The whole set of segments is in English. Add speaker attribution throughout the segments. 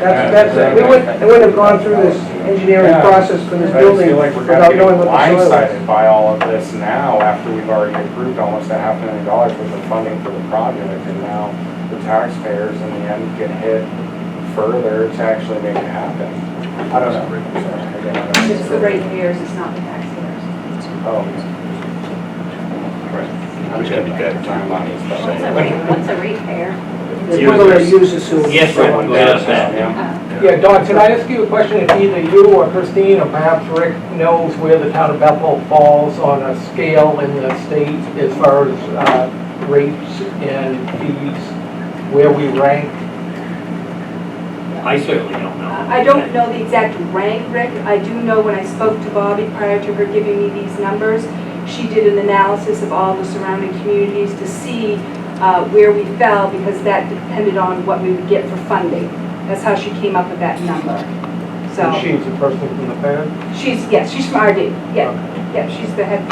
Speaker 1: That's, that's, it. we wouldn't, we wouldn't have gone through this engineering
Speaker 2: Yeah.
Speaker 1: process for this
Speaker 2: I just
Speaker 1: building
Speaker 2: feel like we're kind of
Speaker 1: without
Speaker 2: getting
Speaker 1: knowing what the soil is.
Speaker 2: blindsided by all of this now after we've already approved almost a half million dollars worth of funding for the project. And now the taxpayers in the end get hit further to actually make it happen. I don't know. Again, I don't know.
Speaker 3: It's the ratepayers, it's not the taxpayers.
Speaker 2: Oh. I'm gonna be bad time on these, but-
Speaker 3: What's a rate, what's a ratepayer?
Speaker 1: The people that use the sewer.
Speaker 4: Yes,
Speaker 2: Yeah,
Speaker 4: right, go ahead, Sam.
Speaker 5: Yeah, Don, can I ask you a question? If either you or Christine or perhaps Rick knows where the town of Bethel falls on a scale in the state as far as uh, rates and fees, where we rank?
Speaker 4: I certainly don't know.
Speaker 3: I don't know the exact rank, Rick. I do know when I spoke to Bobby prior to her giving me these numbers, she did an analysis of all the surrounding communities to see uh, where we fell because that depended on what we would get for funding. That's how she came up with that number. So
Speaker 5: And she's a person from the town?
Speaker 3: she's, yes, she's from RD. Yeah, yeah, she's the head,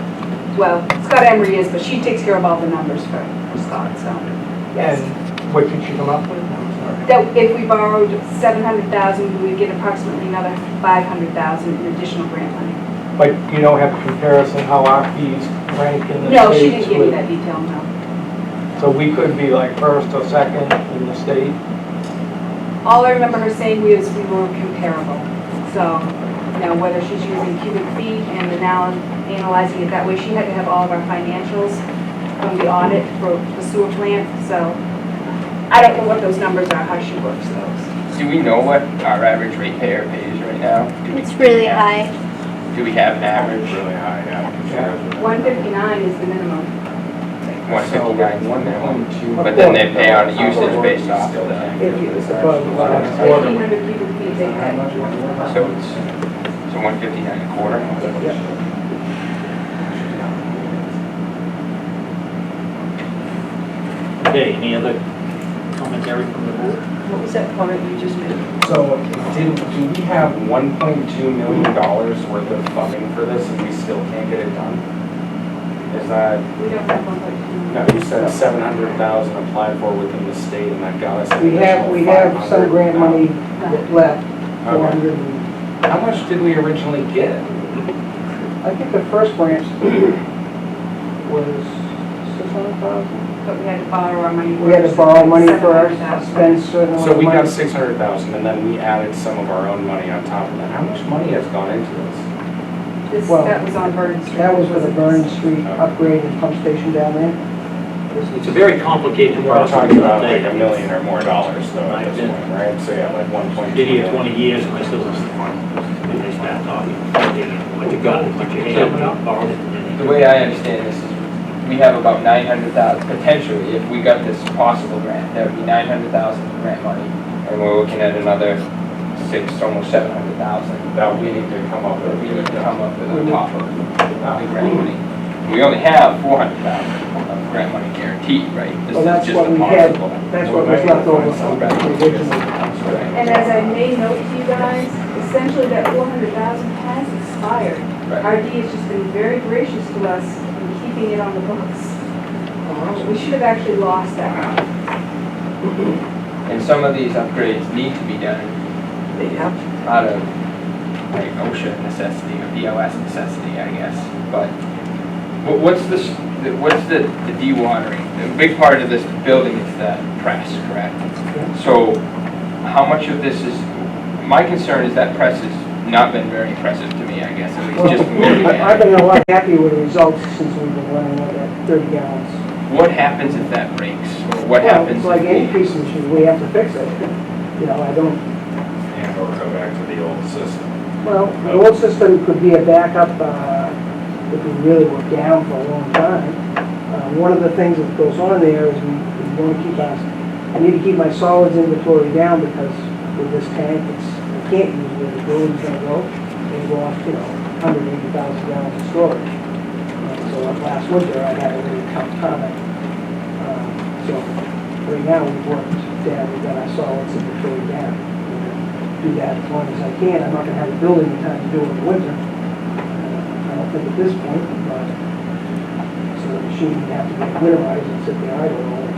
Speaker 3: well, Scott Emery is, but she takes care of all the numbers for for Scott, so, yes.
Speaker 5: And what did she come up with? I'm sorry.
Speaker 3: that if we borrowed seven hundred thousand, we would get approximately another five hundred thousand in additional grant money.
Speaker 5: But you don't have a comparison how our fees rank in
Speaker 3: No,
Speaker 5: the
Speaker 3: she didn't
Speaker 5: states
Speaker 3: give me
Speaker 5: with...
Speaker 3: that detail, no.
Speaker 5: So we could be like first or second in the state?
Speaker 3: All I remember her saying was we were comparable. So, you know, whether she's using cubic feet and then now analyzing it that way, she had to have all of our financials from the audit for the sewer plant, so I don't know what those numbers are, how she works those.
Speaker 6: Do we know what our average ratepayer pays right now? Do we-
Speaker 7: It's really high.
Speaker 6: Do we have an average?
Speaker 2: Really high, yeah.
Speaker 3: One fifty-nine is the minimum.
Speaker 6: One fifty-nine, one now.
Speaker 2: now.
Speaker 6: But then they pay on a usage basis still then.
Speaker 1: If you- it's above the line.
Speaker 3: Fifteen hundred cubic feet they had.
Speaker 6: So it's, so one fifty-nine a quarter?
Speaker 4: Okay, any other commentary from the board?
Speaker 3: What was that comment you just made?
Speaker 2: So did, do we have one point two million dollars worth of funding for this and we still can't get it done? Is that,
Speaker 3: We don't have one um, point
Speaker 2: no,
Speaker 3: two.
Speaker 2: you said seven hundred thousand applied for within the state and that got us an
Speaker 1: We have, we
Speaker 2: additional
Speaker 1: have
Speaker 2: 500,000.
Speaker 1: some grant money that left, four
Speaker 2: Okay.
Speaker 1: hundred and,
Speaker 2: How much did we originally get?
Speaker 1: I think the first grant was six hundred thousand.
Speaker 3: But we had to borrow our money.
Speaker 1: We had to borrow money for our,
Speaker 3: $700,000.
Speaker 1: spend certain amount
Speaker 2: So
Speaker 1: of
Speaker 2: we got
Speaker 1: money.
Speaker 2: six hundred thousand and then we added some of our own money on top of that. How much money has gone into this?
Speaker 3: This,
Speaker 1: well,
Speaker 3: that was on Burden Street.
Speaker 1: That was for the Burn
Speaker 3: Burns.
Speaker 1: Street upgrade and pump station down there.
Speaker 4: It's a very complicated
Speaker 2: We're
Speaker 4: process.
Speaker 2: talking about
Speaker 4: I'll
Speaker 2: like
Speaker 4: tell
Speaker 2: a
Speaker 4: you.
Speaker 2: million or more dollars though at this point, right? So yeah, like one point two.
Speaker 4: Did here twenty years and I still don't know. And they start talking, what you got, what you have, and I borrowed it. and
Speaker 6: The
Speaker 4: then-
Speaker 6: way I understand this is, we have about nine hundred thousand, potentially, if we got this possible grant, that would be nine hundred thousand in grant money. And we're looking at another six, almost seven hundred thousand.
Speaker 2: That we need to come up
Speaker 6: that
Speaker 2: with.
Speaker 6: we need to come up with on top of the grant money. We only have four hundred thousand of grant money guaranteed, right? This
Speaker 1: Well,
Speaker 6: is
Speaker 1: that's
Speaker 6: just
Speaker 1: what
Speaker 6: a
Speaker 1: we had.
Speaker 6: possible.
Speaker 1: That's what was left over from the original.
Speaker 6: Right,
Speaker 3: And as I made note to you guys, essentially that four hundred thousand has expired.
Speaker 6: right.
Speaker 3: RD has just been very gracious to us in keeping it on the books. We should have actually lost that.
Speaker 6: And some of these upgrades need to be done out of like OSHA necessity or BOS necessity, I guess. But wha- what's this, the- what's the, the dewatering? A big part of this building is the press, correct? So how much of this is, my concern is that press has not been very impressive to me, I guess, at least just from looking
Speaker 1: I-
Speaker 6: at
Speaker 1: I've
Speaker 6: it.
Speaker 1: been a lot happier with the results since we've been running with that thirty gallons.
Speaker 6: What happens if that breaks? Or what
Speaker 1: Well,
Speaker 6: happens?
Speaker 1: It's like
Speaker 6: if
Speaker 1: any
Speaker 6: we-
Speaker 1: piece of machine, we have to fix it. You know, I don't,
Speaker 2: And or go back to the old system.
Speaker 1: Well, the old system could be a backup uh, if we really were down for a long time. Uh, One of the things that goes on there is we we want to keep us, I need to keep my solids inventory down because with this tank, it's, I can't use where the building's gonna go. They go off, you know, 180,000 gallons of storage. Uh, So like last winter, I had a really tough time. Uh, So right now, we've worked down, we've got our solids inventory down do that as long as I can. I'm not gonna have a building in time to do it in the winter. Uh, I don't think at this point, but, so the machine would have to be winterized and sit there idle all